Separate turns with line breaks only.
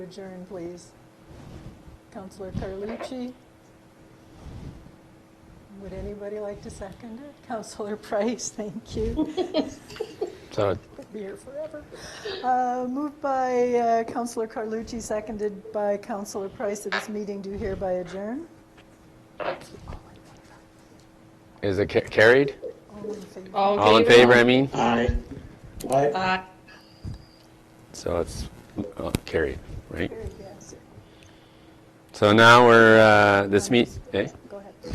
Adjourn, please. Counselor Carlucci? Would anybody like to second it? Counselor Price, thank you.
So
Be here forever. Uh, Moved by uh, Counselor Carlucci, seconded by Counselor Price, that this meeting do hereby adjourn.
is it ca- carried?
All in favor?
All in favor, I mean?
Aye. Aye.
Aye.
So it's uh, carried, right?
Carried, yes.
So now we're, uh, this meet, eh?